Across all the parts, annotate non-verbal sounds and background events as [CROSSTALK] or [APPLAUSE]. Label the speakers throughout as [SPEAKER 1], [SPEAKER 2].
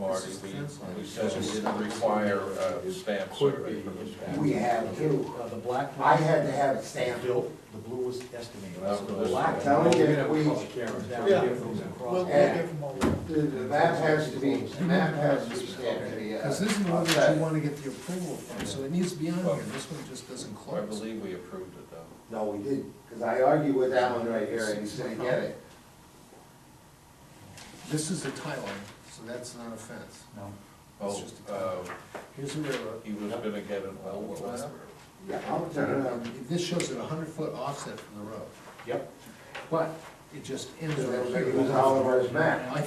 [SPEAKER 1] party, we, we said we didn't require a stamp survey.
[SPEAKER 2] We have two.
[SPEAKER 3] Uh, The black. one-
[SPEAKER 2] I had to have it stamped.
[SPEAKER 3] Bill, the blue was estimated.
[SPEAKER 1] That's
[SPEAKER 3] So
[SPEAKER 1] what
[SPEAKER 3] the
[SPEAKER 1] this
[SPEAKER 3] black
[SPEAKER 1] is.
[SPEAKER 2] Telling you,
[SPEAKER 3] We're gonna have
[SPEAKER 2] we-
[SPEAKER 3] public hearings down
[SPEAKER 4] Yeah.
[SPEAKER 3] here, those across.
[SPEAKER 4] We'll, we'll
[SPEAKER 2] Yeah.
[SPEAKER 4] give them all that.
[SPEAKER 2] The, the map has to be, the map has to be stamped to be, uh.
[SPEAKER 5] Because this is the one that
[SPEAKER 2] okay.
[SPEAKER 5] you wanna get the approval from, so it needs to be on here, this one just doesn't
[SPEAKER 1] I
[SPEAKER 5] close.
[SPEAKER 1] believe we approved it though.
[SPEAKER 2] No, we did, because I argued with that one right here, and he said, get it.
[SPEAKER 5] This is the tie line, so that's not a fence.
[SPEAKER 3] No.
[SPEAKER 5] It's
[SPEAKER 1] Oh,
[SPEAKER 5] just a-
[SPEAKER 1] uh,
[SPEAKER 5] Here's the railroad.
[SPEAKER 1] he was gonna get an old lap.
[SPEAKER 2] Yeah, I'll turn it up.
[SPEAKER 5] Um, This shows it a hundred foot offset from the road,
[SPEAKER 3] Yep.
[SPEAKER 5] but it just ends
[SPEAKER 2] So
[SPEAKER 5] right
[SPEAKER 2] It
[SPEAKER 5] here.
[SPEAKER 2] was Oliver's map.
[SPEAKER 5] I,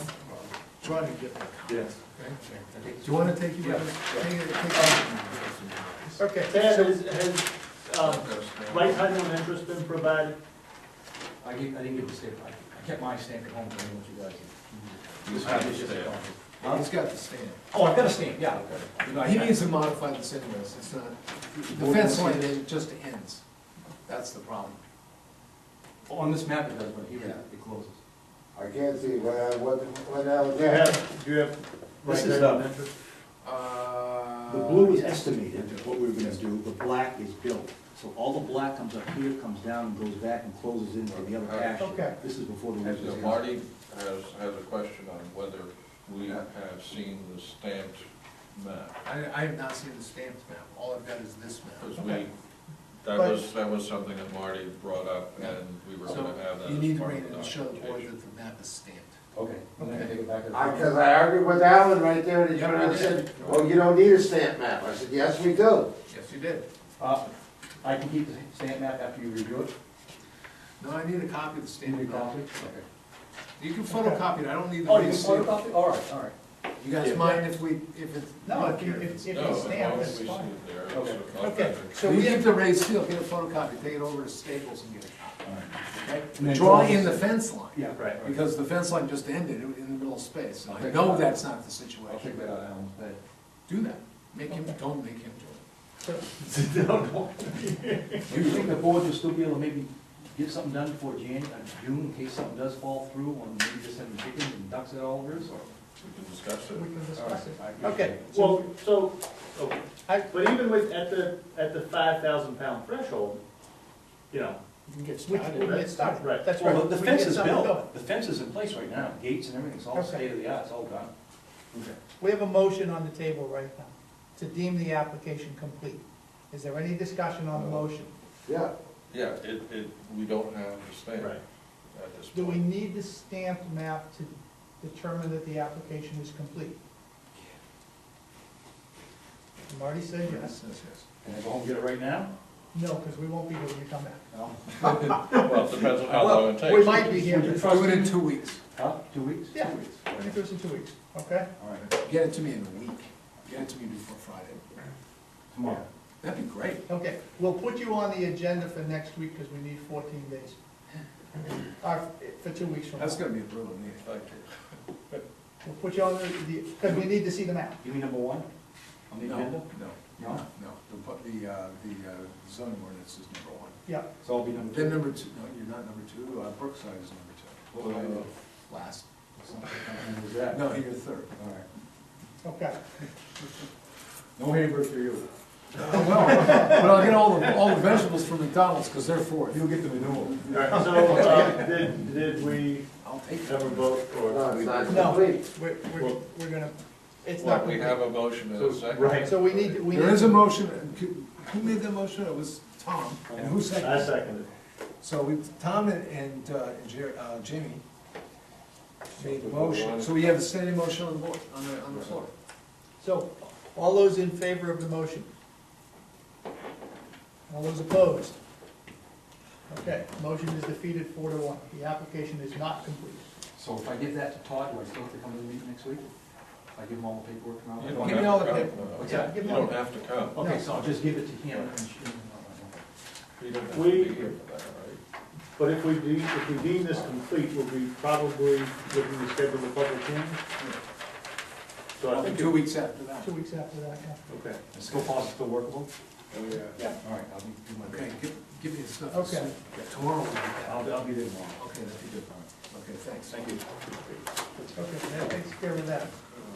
[SPEAKER 5] trying to get my copy.
[SPEAKER 3] Yes.
[SPEAKER 5] okay? Do you wanna take your,
[SPEAKER 3] Yeah.
[SPEAKER 5] take it, take it?
[SPEAKER 4] Okay. Ted, has, has, um, right title and interest been provided?
[SPEAKER 3] I gave, I didn't give the stamp, I I kept my stamp at home, I didn't want you guys. to-
[SPEAKER 1] You have the
[SPEAKER 3] It's just a
[SPEAKER 1] stamp.
[SPEAKER 3] copy.
[SPEAKER 5] He's got the stand.
[SPEAKER 3] Oh, I've got a stamp, yeah. You know, I-
[SPEAKER 5] He
[SPEAKER 3] I-
[SPEAKER 5] needs to modify this anyways, it's not, the fence line, it just ends, that's the problem.
[SPEAKER 3] On this map it does, but here
[SPEAKER 2] Yeah.
[SPEAKER 3] it closes.
[SPEAKER 2] I can't see what, I- what, what I was
[SPEAKER 4] Do you
[SPEAKER 2] there.
[SPEAKER 4] have, do you have right
[SPEAKER 6] This is
[SPEAKER 4] title and
[SPEAKER 6] the-
[SPEAKER 4] interest?
[SPEAKER 5] Uh,
[SPEAKER 6] The blue is estimated, what we were gonna do, the black is built. So all the black comes up here, comes down, and goes back and closes into the other action.
[SPEAKER 4] Okay.
[SPEAKER 6] This is before the
[SPEAKER 1] And
[SPEAKER 6] roof is
[SPEAKER 1] uh,
[SPEAKER 6] out.
[SPEAKER 1] Marty has, has a question on whether we have seen the stamped map.
[SPEAKER 5] I, I have not seen the stamped map, all I've got is this map.
[SPEAKER 1] Because we, that was, that was something that Marty brought up and we were
[SPEAKER 5] So
[SPEAKER 1] gonna have that.
[SPEAKER 5] you
[SPEAKER 1] as
[SPEAKER 5] need to
[SPEAKER 1] part
[SPEAKER 5] read
[SPEAKER 1] of
[SPEAKER 5] it and show the board
[SPEAKER 1] documentation.
[SPEAKER 5] that the map is stamped.
[SPEAKER 3] Okay.
[SPEAKER 5] I'm gonna take
[SPEAKER 2] I, because I argued with Alan right there, and he
[SPEAKER 5] Yeah,
[SPEAKER 2] turned around and
[SPEAKER 5] I did.
[SPEAKER 2] said, oh, you don't need a stamp map. I said, yes, we do.
[SPEAKER 5] Yes, you did.
[SPEAKER 3] Uh, I can keep the stamp map after you review it?
[SPEAKER 5] No, I need a copy of the
[SPEAKER 3] Need a
[SPEAKER 5] stamped map.
[SPEAKER 3] copy?
[SPEAKER 5] You can photocopy it, I don't need the
[SPEAKER 3] Oh, you
[SPEAKER 5] real
[SPEAKER 3] can
[SPEAKER 5] stamp.
[SPEAKER 3] photocopy? All right, all right.
[SPEAKER 5] You guys
[SPEAKER 3] Yeah.
[SPEAKER 5] mind if we, if it's?
[SPEAKER 1] No, as long as we see it there. it's
[SPEAKER 3] Okay.
[SPEAKER 1] a lot
[SPEAKER 4] Okay.
[SPEAKER 1] better.
[SPEAKER 5] So we have to raise seal, get a photocopy, take it over to Staples and get a
[SPEAKER 6] All right.
[SPEAKER 5] copy,
[SPEAKER 6] And
[SPEAKER 5] okay?
[SPEAKER 6] then
[SPEAKER 5] Draw
[SPEAKER 6] close-
[SPEAKER 5] in the fence line.
[SPEAKER 6] Yeah, right. right.
[SPEAKER 5] Because the fence line just ended in the middle of space, and
[SPEAKER 3] I'll
[SPEAKER 5] I
[SPEAKER 3] take
[SPEAKER 5] know
[SPEAKER 3] that.
[SPEAKER 5] that's not the
[SPEAKER 3] I'll take
[SPEAKER 5] situation.
[SPEAKER 3] that out of Alan's bed.
[SPEAKER 5] Do that, make him, don't make him do
[SPEAKER 3] Do you think the board will still be able to maybe get something done before Jan, uh, June, in case something does fall through, or maybe just having chickens and ducks at all this?
[SPEAKER 1] We can discuss it.
[SPEAKER 4] Okay, well, so, but even with, at the, at the five thousand pound threshold, you know,
[SPEAKER 5] it.
[SPEAKER 4] We can get started. Right. That's
[SPEAKER 3] Well, the fence is built, the fence is in place right now, gates and everything, it's all
[SPEAKER 7] Okay.
[SPEAKER 3] state of the art, it's all done.
[SPEAKER 7] We have a motion on the table right now to deem the application complete. Is there any discussion on the motion?
[SPEAKER 2] Yeah.
[SPEAKER 1] Yeah, it, it, we don't have the stamp
[SPEAKER 4] Right.
[SPEAKER 1] at this
[SPEAKER 7] Do we
[SPEAKER 1] point.
[SPEAKER 7] need the stamped map to determine that the application is complete? Marty said
[SPEAKER 5] Yes,
[SPEAKER 7] yes.
[SPEAKER 5] yes, yes.
[SPEAKER 3] Can I go home and get it right now?
[SPEAKER 7] No, because we won't be here when you come back.
[SPEAKER 3] No.
[SPEAKER 1] Well, it depends on how long it takes.
[SPEAKER 7] We might be here.
[SPEAKER 3] Would you
[SPEAKER 7] Give
[SPEAKER 3] trust
[SPEAKER 5] Do it in
[SPEAKER 3] me?
[SPEAKER 5] two weeks,
[SPEAKER 3] Huh, two weeks?
[SPEAKER 7] Yeah.
[SPEAKER 3] Two weeks.
[SPEAKER 7] it to us in two weeks, okay?
[SPEAKER 3] All right,
[SPEAKER 5] get it to me in a week, get it to me before Friday,
[SPEAKER 3] tomorrow.
[SPEAKER 5] that'd be great.
[SPEAKER 7] Okay, we'll put you on the agenda for next week because we need fourteen days. Or for two weeks from now.
[SPEAKER 5] That's gonna be a brutal meeting.
[SPEAKER 1] Thank you.
[SPEAKER 7] We'll put you on the, because we need to see the map.
[SPEAKER 3] You mean number one on the
[SPEAKER 5] No,
[SPEAKER 3] agenda?
[SPEAKER 5] No,
[SPEAKER 3] No?
[SPEAKER 5] no, no, the, bu- the, uh, the uh, zoning ordinance is number one.
[SPEAKER 7] Yeah,
[SPEAKER 3] So I'll be number
[SPEAKER 5] Then
[SPEAKER 3] two.
[SPEAKER 5] number two, no, you're not number two, uh, Brookside is number
[SPEAKER 3] What would I do?
[SPEAKER 5] two, last.
[SPEAKER 3] Something like that.
[SPEAKER 5] No, you're third.
[SPEAKER 3] All right.
[SPEAKER 7] okay.
[SPEAKER 3] No hamburger for you.
[SPEAKER 5] Oh, [LAUGHS] well, but I'll get all the, all the vegetables from McDonald's, because they're fourth.
[SPEAKER 3] You'll get the manure.
[SPEAKER 4] All right, so, uh, did, did we
[SPEAKER 5] I'll take
[SPEAKER 4] have a
[SPEAKER 5] them.
[SPEAKER 4] vote
[SPEAKER 2] No,
[SPEAKER 4] or?
[SPEAKER 2] it's not
[SPEAKER 7] No.
[SPEAKER 2] complete.
[SPEAKER 7] We're, we're, we're gonna, it's
[SPEAKER 1] Well,
[SPEAKER 7] not
[SPEAKER 1] we
[SPEAKER 7] complete.
[SPEAKER 1] have a motion in a second.
[SPEAKER 4] Right.
[SPEAKER 7] So we need, we need.
[SPEAKER 5] There is a motion, and who- who made the motion? It was Tom, and who
[SPEAKER 4] I
[SPEAKER 5] seconded? it?
[SPEAKER 4] second
[SPEAKER 5] So we, Tom and, and uh, and Jer- uh, Jamie made the motion, so we have a standing motion on the board, on the, on the floor.
[SPEAKER 7] So, all those in favor of the motion? All those opposed? Okay, motion is defeated four to one. The application is not complete.
[SPEAKER 3] So if I give that to Todd, do I still have to come to the meeting next week? If I give him all the paperwork and all
[SPEAKER 1] You
[SPEAKER 3] that?
[SPEAKER 1] don't
[SPEAKER 5] Give me
[SPEAKER 1] have
[SPEAKER 5] all
[SPEAKER 1] to
[SPEAKER 5] the
[SPEAKER 1] come.
[SPEAKER 5] paperwork.
[SPEAKER 1] No.
[SPEAKER 3] What's that?
[SPEAKER 7] Give
[SPEAKER 1] You
[SPEAKER 7] them all.
[SPEAKER 1] don't have to come.
[SPEAKER 3] Okay, so I'll just give it to him.
[SPEAKER 1] You don't have to
[SPEAKER 4] We-
[SPEAKER 1] be here for that, right?
[SPEAKER 4] it. But if we deem, if we deem this complete, we'll be probably looking to schedule the public hearing. So I think.
[SPEAKER 5] Two weeks after that.
[SPEAKER 7] Two weeks after that, yeah.
[SPEAKER 4] Okay.
[SPEAKER 3] Is Still possible, still workable?
[SPEAKER 4] Yeah.
[SPEAKER 3] Yeah. All right, I'll be, do my
[SPEAKER 5] Okay,
[SPEAKER 3] best.
[SPEAKER 5] give, give me the stuff.
[SPEAKER 7] Okay.
[SPEAKER 5] Yeah, Tomorrow we'll get that.
[SPEAKER 3] I'll, I'll be there tomorrow.
[SPEAKER 5] Okay, that'd be good.
[SPEAKER 3] All right.
[SPEAKER 5] Okay, thanks.
[SPEAKER 3] Thank you.
[SPEAKER 7] Okay, that takes care of that.